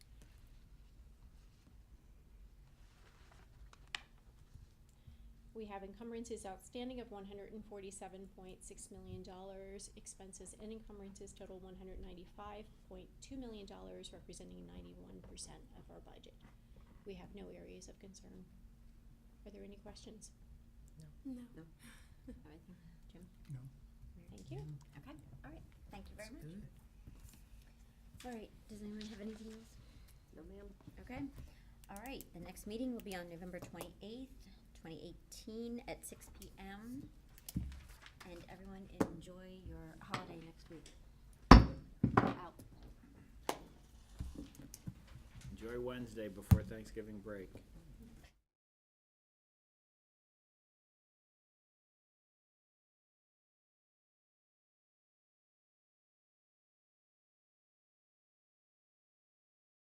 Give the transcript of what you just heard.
we have encumbrances outstanding of one hundred and forty-seven point six million dollars. Expenses and encumbrances total one hundred ninety-five point two million dollars, representing ninety-one percent of our budget. We have no areas of concern. Are there any questions? No. No. Everything, Jim? No. Thank you. Okay, all right, thank you very That's much. it. All right, does anyone have anything else? No, ma'am. Okay, all right, the next meeting will be on November twenty-eighth, twenty eighteen, at six P M. And everyone enjoy your holiday next week. Out. Enjoy Wednesday before Thanksgiving break.